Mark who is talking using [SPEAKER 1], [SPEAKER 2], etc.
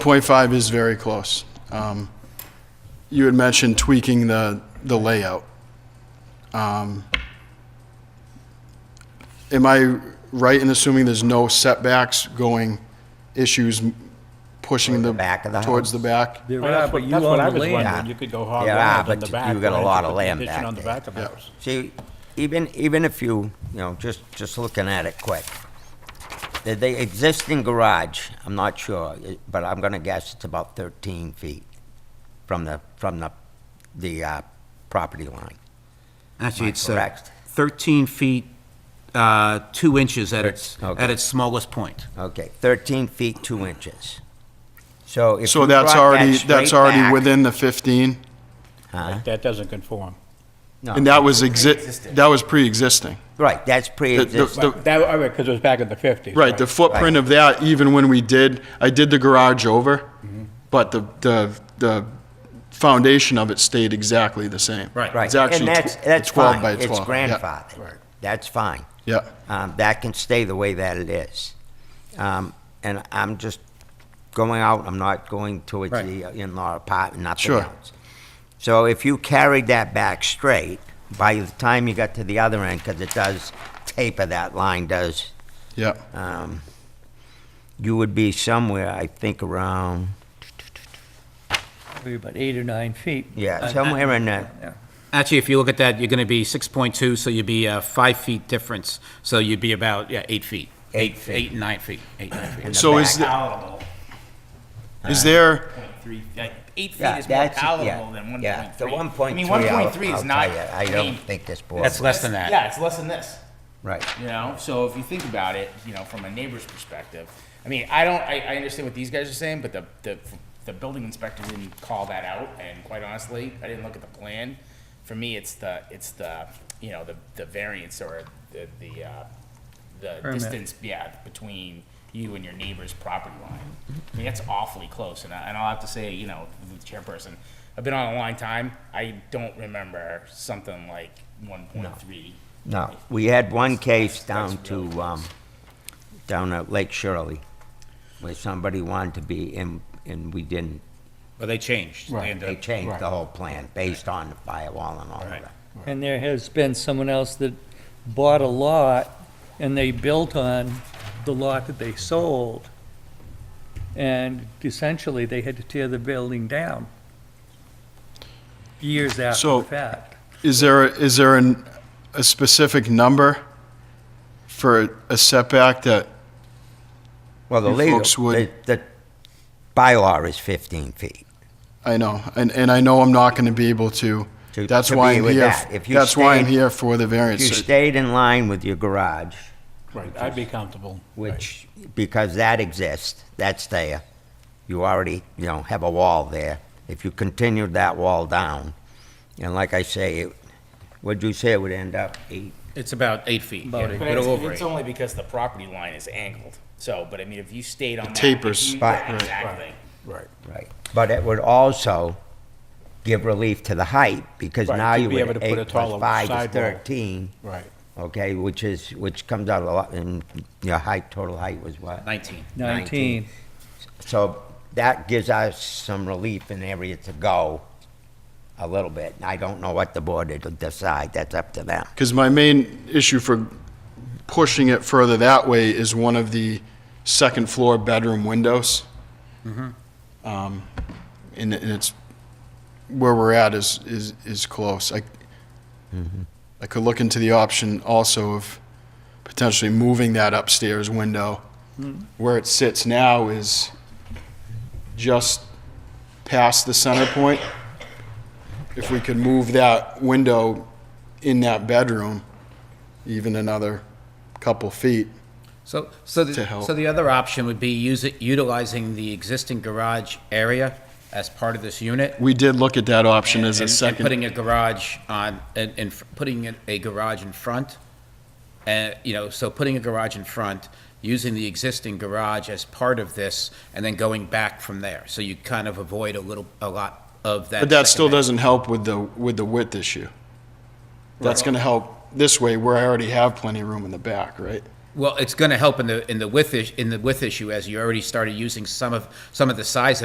[SPEAKER 1] 0.5 is very close. Um, You had mentioned tweaking the, the layout. Um, Am I right in assuming there's no setbacks going, issues m- pushing the?
[SPEAKER 2] back of the
[SPEAKER 1] Towards the
[SPEAKER 2] house?
[SPEAKER 1] back?
[SPEAKER 3] There
[SPEAKER 4] Well,
[SPEAKER 3] are,
[SPEAKER 4] that's
[SPEAKER 3] but
[SPEAKER 4] what,
[SPEAKER 3] you
[SPEAKER 4] that's what I
[SPEAKER 3] own the
[SPEAKER 4] was
[SPEAKER 3] land,
[SPEAKER 2] Yeah.
[SPEAKER 4] wondering, you could go hog
[SPEAKER 2] Yeah,
[SPEAKER 4] wild
[SPEAKER 2] but
[SPEAKER 4] on the
[SPEAKER 2] you-
[SPEAKER 4] back.
[SPEAKER 2] you got a
[SPEAKER 4] right,
[SPEAKER 2] lot
[SPEAKER 4] put
[SPEAKER 2] of
[SPEAKER 4] the
[SPEAKER 2] land
[SPEAKER 4] addition
[SPEAKER 2] back
[SPEAKER 4] On the
[SPEAKER 2] there.
[SPEAKER 4] back of the
[SPEAKER 1] Yeah.
[SPEAKER 4] house.
[SPEAKER 2] See, even, even if you, you know, just, just looking at it quick, the, the existing garage, I'm not sure, it- but I'm gonna guess it's about thirteen feet from the, from the, the, uh, property line.
[SPEAKER 5] Actually, it's uh,
[SPEAKER 2] correct?
[SPEAKER 5] 13 feet, uh, 2 inches at its,
[SPEAKER 2] Okay.
[SPEAKER 5] at its smallest point.
[SPEAKER 2] Okay, thirteen feet, two inches. So if
[SPEAKER 1] So
[SPEAKER 2] you
[SPEAKER 1] that's
[SPEAKER 2] brought that
[SPEAKER 1] already, that's
[SPEAKER 2] straight
[SPEAKER 1] already
[SPEAKER 2] back-
[SPEAKER 1] within the 15?
[SPEAKER 2] Huh?
[SPEAKER 4] That doesn't conform.
[SPEAKER 2] No.
[SPEAKER 1] And that was exi, that was pre-existing.
[SPEAKER 2] Right, that's
[SPEAKER 1] The- the-
[SPEAKER 2] pre-existing.
[SPEAKER 1] the-
[SPEAKER 4] That, all right, because it was back in the fifties.
[SPEAKER 1] Right, the footprint of that, even when we did, I did the garage over, but the, the, the foundation of it stayed exactly the same.
[SPEAKER 5] Right.
[SPEAKER 2] Right,
[SPEAKER 1] It's actually
[SPEAKER 2] and that's,
[SPEAKER 1] tw-
[SPEAKER 2] that's
[SPEAKER 1] 12
[SPEAKER 2] fine.
[SPEAKER 1] by
[SPEAKER 2] It's
[SPEAKER 1] 12, yeah.
[SPEAKER 2] grandfathered. That's fine.
[SPEAKER 1] Yeah.
[SPEAKER 2] Um, that can stay the way that it is. Um, and I'm just going out, I'm not going towards the uh, in-law apartment, nothing
[SPEAKER 1] Sure.
[SPEAKER 2] else. So if you carried that back straight, by the time you got to the other end, because it does taper, that line does,
[SPEAKER 1] Yeah,
[SPEAKER 2] um, you would be somewhere, I think, around,
[SPEAKER 6] Probably about eight or nine feet.
[SPEAKER 2] yeah, somewhere in that,
[SPEAKER 5] Actually, if you look at that, you're going to be 6.2, so you'd be uh, 5 feet difference, so you'd be about, yeah, 8 feet.
[SPEAKER 2] Eight feet.
[SPEAKER 5] Eight, 9 feet, 8, 9 feet.
[SPEAKER 2] in
[SPEAKER 1] So
[SPEAKER 2] the
[SPEAKER 1] is
[SPEAKER 2] back.
[SPEAKER 1] the- is there,
[SPEAKER 7] Three, like, eight feet
[SPEAKER 2] Yeah,
[SPEAKER 7] is more
[SPEAKER 2] that's-
[SPEAKER 7] palatable
[SPEAKER 2] yeah,
[SPEAKER 7] than one point three.
[SPEAKER 2] yeah. The one
[SPEAKER 7] I
[SPEAKER 2] point
[SPEAKER 7] mean,
[SPEAKER 2] three,
[SPEAKER 7] one
[SPEAKER 2] I'll-
[SPEAKER 7] point three is
[SPEAKER 2] I'll
[SPEAKER 7] not,
[SPEAKER 2] tell ya,
[SPEAKER 7] I
[SPEAKER 2] I
[SPEAKER 7] mean,
[SPEAKER 2] don't think this board.
[SPEAKER 5] That's
[SPEAKER 2] would.
[SPEAKER 5] less than that.
[SPEAKER 7] yeah, it's less than this,
[SPEAKER 2] Right.
[SPEAKER 7] you know? So if you think about it, you know, from a neighbor's perspective, I mean, I don't, I, I understand what these guys are saying, but the, the, the building inspector didn't call that out, and quite honestly, I didn't look at the plan. For me, it's the, it's the, you know, the, the variance or the, the, uh, the distance, yeah, between you and your neighbor's property line. I mean, that's awfully close, and I, and I'll have to say, you know, the chairperson, I've been on a long time, I don't remember something like one point three.
[SPEAKER 2] No, we had one case down to, um, down at Lake Shirley, where somebody wanted to be in, and we didn't.
[SPEAKER 5] Well, they changed. Right.
[SPEAKER 2] They changed the whole plan based on the firewall and all of
[SPEAKER 5] Right.
[SPEAKER 2] that.
[SPEAKER 6] And there has been someone else that bought a lot and they built on the lot that they sold. And essentially, they had to tear the building down years after
[SPEAKER 1] So-
[SPEAKER 6] the fact.
[SPEAKER 1] is there, is there an, a specific number for a setback that,
[SPEAKER 2] Well, the
[SPEAKER 1] You
[SPEAKER 2] legal,
[SPEAKER 1] folks would-
[SPEAKER 2] the, the bylaw is fifteen feet.
[SPEAKER 1] I know, and, and I know I'm not gonna be able to,
[SPEAKER 2] To-
[SPEAKER 1] that's
[SPEAKER 2] to
[SPEAKER 1] why
[SPEAKER 2] be
[SPEAKER 1] I'm
[SPEAKER 2] with
[SPEAKER 1] here,
[SPEAKER 2] that. If you
[SPEAKER 1] that's why I'm
[SPEAKER 2] stayed-
[SPEAKER 1] here for the
[SPEAKER 2] If you
[SPEAKER 1] variance.
[SPEAKER 2] stayed in line with your garage,
[SPEAKER 4] Right, I'd be comfortable.
[SPEAKER 2] which, because that exists, that's there. You already, you know, have a wall there. If you continued that wall down, and like I say, it- what'd you say it would end up? Eight,
[SPEAKER 5] It's about 8 feet.
[SPEAKER 6] About
[SPEAKER 5] yeah,
[SPEAKER 6] eight. But
[SPEAKER 5] a
[SPEAKER 7] But
[SPEAKER 5] little
[SPEAKER 7] it's,
[SPEAKER 5] over
[SPEAKER 7] it's
[SPEAKER 5] 8.
[SPEAKER 7] only because the property line is angled. So, but I mean, if you stayed on that,
[SPEAKER 1] tapers.
[SPEAKER 7] if you-
[SPEAKER 2] Right. Right.
[SPEAKER 7] Exactly.
[SPEAKER 4] Right.
[SPEAKER 2] right. But it would also give relief to the height, because
[SPEAKER 4] Right,
[SPEAKER 2] now
[SPEAKER 4] to
[SPEAKER 2] you
[SPEAKER 4] be
[SPEAKER 2] would,
[SPEAKER 4] able to put a
[SPEAKER 2] eight plus
[SPEAKER 4] taller
[SPEAKER 2] five is
[SPEAKER 4] sidewall.
[SPEAKER 2] thirteen,
[SPEAKER 4] Right.
[SPEAKER 2] okay, which is, which comes out a lot, and your height, total height was what?
[SPEAKER 5] 19.
[SPEAKER 6] 19.
[SPEAKER 2] So that gives us some relief in area to go a little bit. I don't know what the board will decide, that's up to them.
[SPEAKER 1] Because my main issue for pushing it further that way is one of the second floor bedroom windows. Um, And it- and it's, where we're at is, is, is close. I, I could look into the option also of potentially moving that upstairs window. Where it sits now is just past the center point. If we could move that window in that bedroom, even another couple feet.
[SPEAKER 5] So, so,
[SPEAKER 1] To
[SPEAKER 5] the,
[SPEAKER 1] help.
[SPEAKER 5] so the other option would be use it, utilizing the existing garage area as part of this unit.
[SPEAKER 1] We did look at that option as
[SPEAKER 5] and-
[SPEAKER 1] a
[SPEAKER 5] and
[SPEAKER 1] second.
[SPEAKER 5] putting a garage on, and, and f- putting a- a garage in front, and, you know, so putting a garage in front, using the existing garage as part of this, and then going back from there. So you kind of avoid a little, a lot of that.
[SPEAKER 1] But that still
[SPEAKER 5] second-
[SPEAKER 1] doesn't help with the, with the width issue. That's gonna help this way where I already have plenty of room in the back, right?
[SPEAKER 5] Well, it's going to help in the, in the width, is- in the width issue, as you already started using some of, some of the size